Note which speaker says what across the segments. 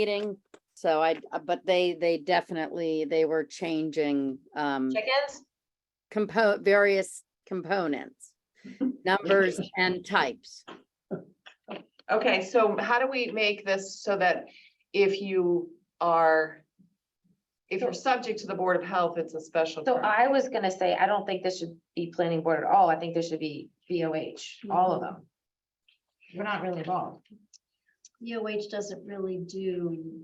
Speaker 1: meeting. So I, uh, but they, they definitely, they were changing, um,
Speaker 2: Chickens?
Speaker 1: compo, various components, numbers and types.
Speaker 2: Okay, so how do we make this so that if you are, if you're subject to the Board of Health, it's a special
Speaker 3: So
Speaker 2: permit?
Speaker 3: I was gonna say, I don't think this should be planning board at all. I think there should be BOH, all of them. We're not really involved.
Speaker 4: EOH doesn't really do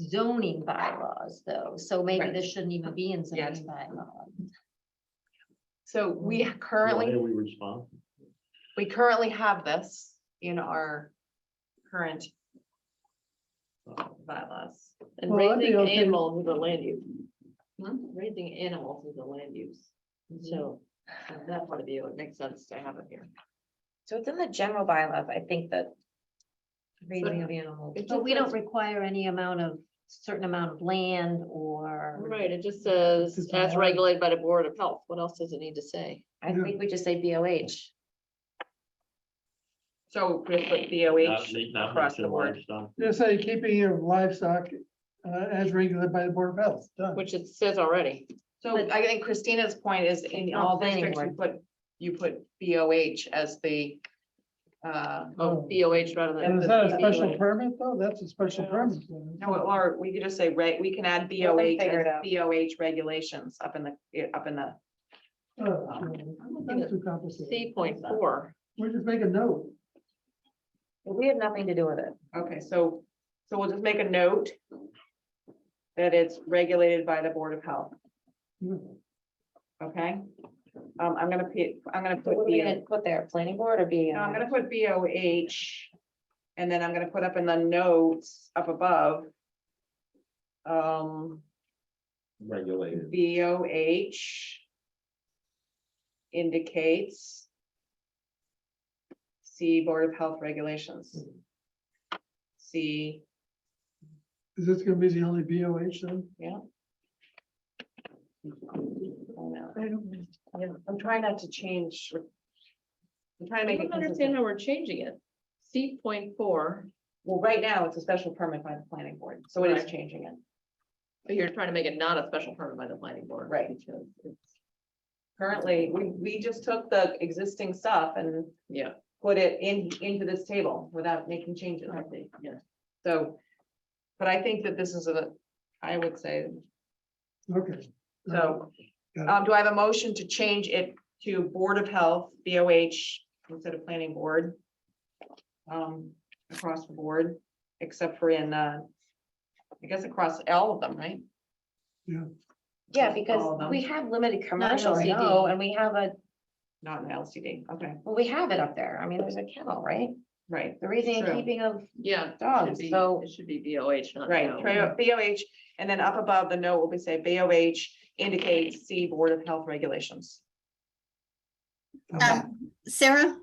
Speaker 4: zoning bylaws though, so maybe
Speaker 2: Right.
Speaker 4: this shouldn't even be in
Speaker 2: Yes.
Speaker 4: zoning bylaw.
Speaker 2: So we
Speaker 5: Why
Speaker 2: currently,
Speaker 5: are we responsible?
Speaker 2: we currently have this in our current bylaws.
Speaker 6: And
Speaker 7: Well, I'd be
Speaker 6: raising
Speaker 7: okay with-
Speaker 6: animal with the land use,
Speaker 2: Hmm?
Speaker 6: raising animals with the land use, so from that part of view, it makes sense to have it here.
Speaker 3: So it's in the general bylaws, I think that. Raising of animals.
Speaker 6: It
Speaker 4: But
Speaker 6: just
Speaker 4: we don't
Speaker 6: says-
Speaker 4: require any amount of, certain amount of land or.
Speaker 6: Right, it just says,
Speaker 7: It's
Speaker 6: as
Speaker 7: more-
Speaker 6: regulated by the Board of Health, what else does it need to say?
Speaker 3: I think we just say BOH.
Speaker 2: So we put
Speaker 5: Not
Speaker 2: BOH,
Speaker 5: meat, not
Speaker 2: across
Speaker 5: meat,
Speaker 2: the board.
Speaker 5: livestock.
Speaker 7: Just say keeping of livestock uh, as regulated by the Board of Health, done.
Speaker 6: Which it says already.
Speaker 2: so I think Christina's point is in
Speaker 3: It's
Speaker 2: all
Speaker 3: not planning
Speaker 2: districts, you put, you put BOH as the uh,
Speaker 6: Oh,
Speaker 7: Oh.
Speaker 6: BOH rather than.
Speaker 7: And is that a
Speaker 6: BOH.
Speaker 7: special permit though? That's a special permit.
Speaker 2: No, or we could just say, right, we can
Speaker 3: Let
Speaker 2: add
Speaker 3: them
Speaker 2: BOH,
Speaker 3: figure it
Speaker 2: as
Speaker 3: out.
Speaker 2: BOH regulations up in the, eh, up in the,
Speaker 7: Oh, That's too complicated.
Speaker 6: C point four,
Speaker 7: We just make a note.
Speaker 3: We have nothing to do with it.
Speaker 2: okay, so, so we'll just make a note. That it's regulated by the Board of Health, okay? Um, I'm gonna put, I'm gonna put,
Speaker 3: What are we gonna
Speaker 2: B-
Speaker 3: put there, planning board or
Speaker 2: no, I'm
Speaker 3: BOH?
Speaker 2: gonna put BOH. And then I'm gonna put up in the notes up above. Um,
Speaker 5: Regulated.
Speaker 2: BOH indicates see Board of Health regulations. See,
Speaker 7: Is this gonna be the only BOH then?
Speaker 2: oh no, I'm- I'm trying not to change. I'm trying to
Speaker 6: I
Speaker 2: make it
Speaker 6: don't understand
Speaker 2: consistent.
Speaker 6: how we're changing it. C point four,
Speaker 2: Well, right now, it's a special permit by the planning board, so it is
Speaker 6: Right.
Speaker 2: changing it.
Speaker 6: but you're trying to make it not a special permit by the planning board.
Speaker 2: Right.
Speaker 6: because it's-
Speaker 2: Currently, we, we just took the existing stuff and
Speaker 6: Yeah,
Speaker 2: put it in, into this table without making changes.
Speaker 6: I think, yeah.
Speaker 2: So, but I think that this is a, I would say,
Speaker 7: Okay. Uh,
Speaker 2: so,
Speaker 7: Um, Got it.
Speaker 2: um, do I have a motion to change it to Board of Health, BOH, instead of Planning Board? Um, across the board, except for in, uh, I guess across all of them, right?
Speaker 3: Yeah,
Speaker 2: Just all of
Speaker 3: because
Speaker 2: them.
Speaker 3: we have limited commercial,
Speaker 4: LCD.
Speaker 3: no, and we have a,
Speaker 2: Not in LCD, okay,
Speaker 3: well, we have it up there. I mean, there's a kennel, right?
Speaker 2: right,
Speaker 3: The raising and
Speaker 2: True.
Speaker 3: keeping of,
Speaker 6: Yeah. it should
Speaker 3: Dogs,
Speaker 6: be-
Speaker 3: so-
Speaker 6: It should be BOH, not.
Speaker 2: right,
Speaker 6: no.
Speaker 2: tra- BOH, and then up above the note will be say BOH indicates see Board of Health regulations.
Speaker 7: Um,
Speaker 8: Sarah,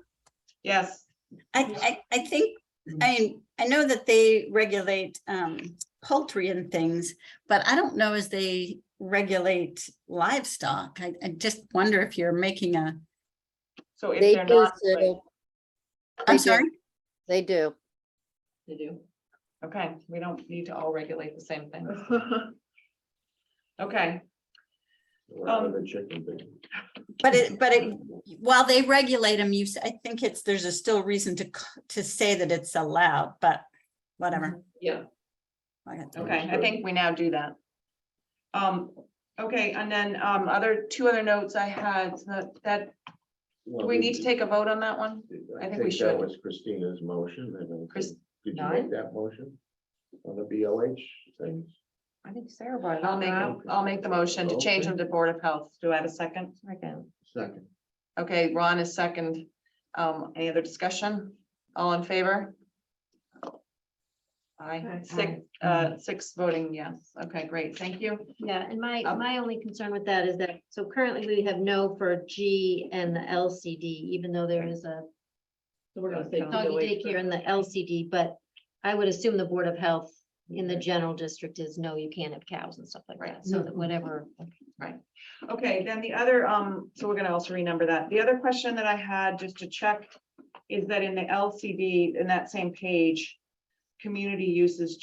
Speaker 2: Yes,
Speaker 8: I, I, I think,
Speaker 7: Mm.
Speaker 8: I, I know that they regulate um, poultry and things, but I don't know as they regulate livestock. I, I just wonder if you're making a,
Speaker 2: so if
Speaker 1: They
Speaker 2: they're
Speaker 1: do,
Speaker 2: not,
Speaker 1: so- They
Speaker 8: I'm
Speaker 1: do.
Speaker 8: sorry,
Speaker 1: they do.
Speaker 6: They do.
Speaker 2: okay, we don't need to all regulate the same thing, okay. Um,
Speaker 5: We're out of the chicken thing.
Speaker 8: but it, but it, while they regulate them, you, s- I think it's, there's a still reason to, c- to say that it's allowed, but whatever.
Speaker 6: Yeah,
Speaker 8: Okay.
Speaker 2: Okay, I
Speaker 5: Understood.
Speaker 2: think we now do that. Um, okay, and then, um, other, two other notes I had, that, that, do
Speaker 5: Well,
Speaker 2: we need to take a vote on that one? I think we should.
Speaker 5: That was Christina's motion, and then,
Speaker 2: Chris-
Speaker 5: did you
Speaker 2: Nine?
Speaker 5: make that motion? On the BOH things?
Speaker 3: I think Sarah brought it
Speaker 2: I'll
Speaker 3: up.
Speaker 2: make, a- I'll make the motion to change them to Board of Health. Do I have a second?
Speaker 3: Second.
Speaker 5: Second.
Speaker 2: Okay, Ron is second. Um, any other discussion? All in favor? Aye, six, uh, six voting yes. Okay, great, thank you.
Speaker 4: Yeah, and my,
Speaker 2: Um,
Speaker 4: my only concern with that is that, so currently we have no for G and the LCD, even though there is a
Speaker 6: so we're gonna say.
Speaker 2: Doggy
Speaker 4: doggy
Speaker 6: BOH
Speaker 4: daycare in the LCD, but I would assume the Board of Health in the general district is, no, you can't have cows and stuff like that, so that whatever.
Speaker 2: Okay, then the other, um, so we're gonna also renumber that. The other question that I had, just to check, is that in the LCD, in that same page, community uses